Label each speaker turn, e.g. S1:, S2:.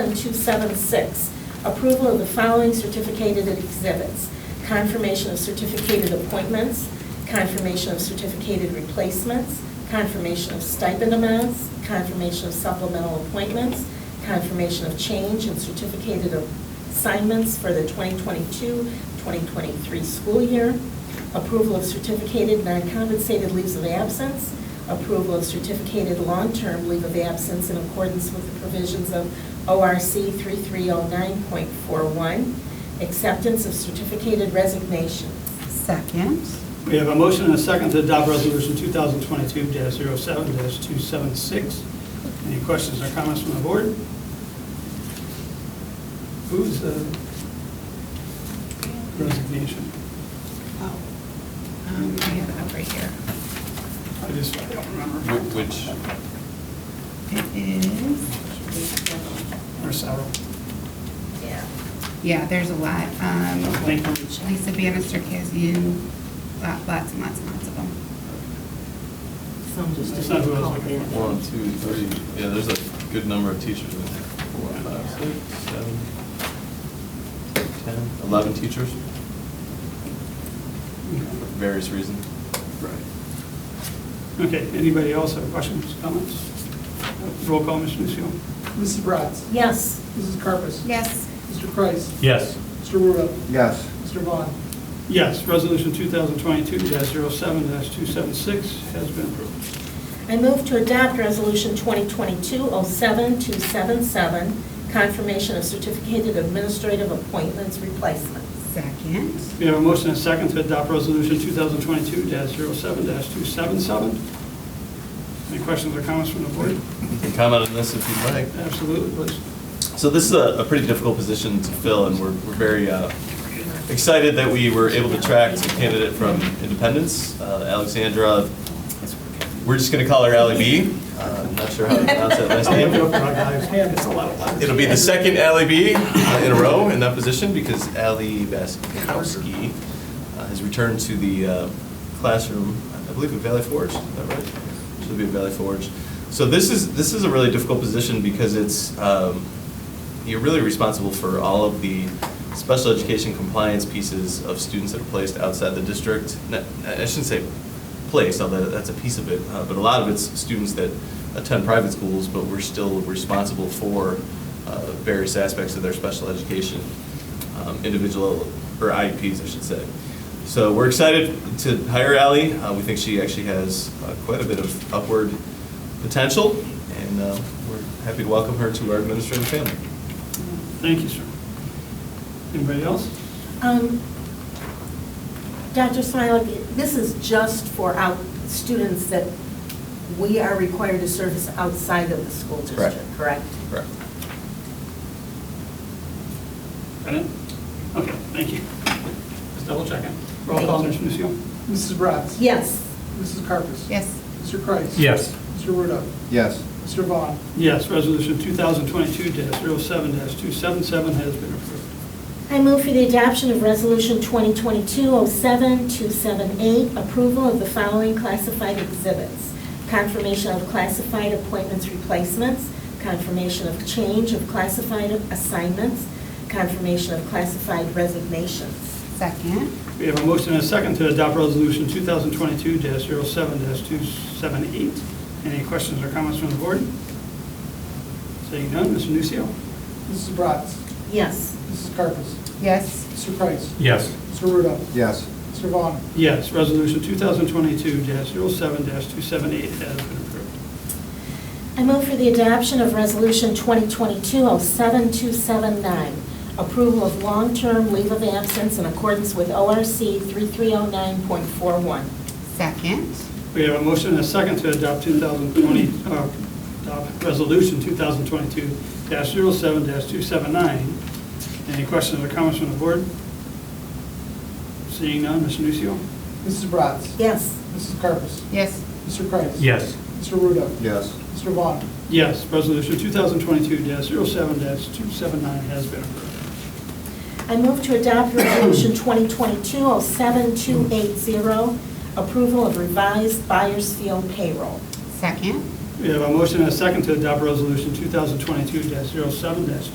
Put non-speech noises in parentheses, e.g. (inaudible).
S1: 7276, approval of the following certificated exhibits, confirmation of certificated appointments, confirmation of certificated replacements, confirmation of stipend amounts, confirmation of supplemental appointments, confirmation of change in certificated assignments for the 2022-2023 school year, approval of certificated non-compensated leaves of absence, approval of certificated long-term leave of absence in accordance with the provisions of ORC 3309.41, acceptance of certificated resignations.
S2: Second.
S3: We have a motion and a second to adopt Resolution 2022-07-276. Any questions or comments from the board? Who's the resignation?
S2: Oh, um, I have it up right here.
S3: I just, I don't
S4: Wh-
S3: remember.
S4: Which,
S2: It is,
S3: Or Sarah.
S1: Yeah.
S2: yeah, there's a lot. Um,
S3: Thank you.
S2: Lisa Bannister, Kazian, lot- lots and lots and lots of them.
S5: Some just
S3: That's not who I was
S5: didn't
S3: looking
S5: call
S4: one,
S5: it.
S4: two, three, yeah, there's a good number of teachers in there. Four, five, six, seven, ten, eleven teachers, for various reasons.
S3: Right. Okay, anybody else have questions, comments? Roll call, Mr. Nusio.
S6: Mrs. Bratz.
S1: Yes.
S6: Mrs. Carpus.
S2: Yes.
S6: Mr. Kreis.
S7: yes,
S6: Mr. Ruda.
S8: yes,
S6: Mr. Vaughn.
S3: Yes, Resolution 2022-07-276 has been approved.
S1: I move to adopt Resolution 2022-07277, confirmation of certificated administrative appointments replacements.
S2: Second.
S3: We have a motion and a second to adopt Resolution 2022-07-277. Any questions or comments from the board?
S4: You can comment on this if you'd like.
S3: Absolutely, please.
S4: So this is a, a pretty difficult position to fill, and we're, we're very uh, excited that we were able to attract a candidate from Independence, uh, Alexandra, we're just going to call her Ally B. Uh, I'm not sure how to pronounce that last
S6: (laughs)
S4: name.
S3: It's a lot of letters.
S4: It'll be the second Ally B uh, in a row in that position because Ally Baskowski uh, has returned to the uh, classroom, I believe at Valley Forge, is that right? She'll be at Valley Forge. So this is, this is a really difficult position because it's, um, you're really responsible for all of the special education compliance pieces of students that are placed outside the district. Not- I shouldn't say place, although that's a piece of it, uh, but a lot of it's students that attend private schools, but we're still responsible for uh, various aspects of their special education, um, individual, or IEPs, I should say. So we're excited to hire Ally. Uh, We think she actually has uh, quite a bit of upward potential, and uh, we're happy to welcome her to our administrative family.
S3: Thank you, sir. Anybody else?
S1: Um, Dr. Smilak, this is just for out, students that we are required to service outside of the school
S4: Correct.
S1: district, correct?
S4: Correct.
S3: Got it? Okay, thank you. Just double checking. Roll call, Mr. Nusio.
S6: Mrs. Bratz.
S1: Yes.
S6: Mrs. Carpus.
S2: Yes.
S6: Mr. Kreis.
S7: yes,
S6: Mr. Ruda.
S8: yes,
S6: Mr. Vaughn.
S3: Yes, Resolution 2022-07-277 has been approved.
S1: I move for the adoption of Resolution 2022-07-278, approval of the following classified exhibits. Confirmation of classified appointments replacements, confirmation of change of classified assignments, confirmation of classified resignations.
S2: Second.
S3: We have a motion and a second to adopt Resolution 2022-07-278. Any questions or comments from the board? Seeing none, Mr. Nucio.
S6: Mrs. Bratz.
S1: Yes.
S6: Mrs. Carpus.
S2: Yes.
S6: Mr. Kreis.
S7: yes,
S6: Mr. Ruda.
S8: yes,
S6: Mr. Vaughn.
S3: Yes, Resolution 2022-07-278 has been approved.
S1: I move for the adoption of Resolution 2022-07279, approval of long-term leave of absence in accordance with ORC 3309.41.
S2: Second.
S3: We have a motion and a second to adopt 2020, uh, adopt Resolution 2022-07-279. Any questions or comments from the board? Seeing none, Mr. Nucio.
S6: Mrs. Bratz.
S1: Yes.
S6: Mrs. Carpus.
S2: Yes.
S6: Mr. Kreis.
S7: yes,
S6: Mr. Ruda.
S8: yes,
S6: Mr. Vaughn.
S3: Yes, Resolution 2022-07-279 has been approved.
S1: I move to adopt Resolution 2022-07280, approval of revised Buyers Field payroll.
S2: Second.
S3: We have a motion and a second to adopt Resolution 2022-07-279.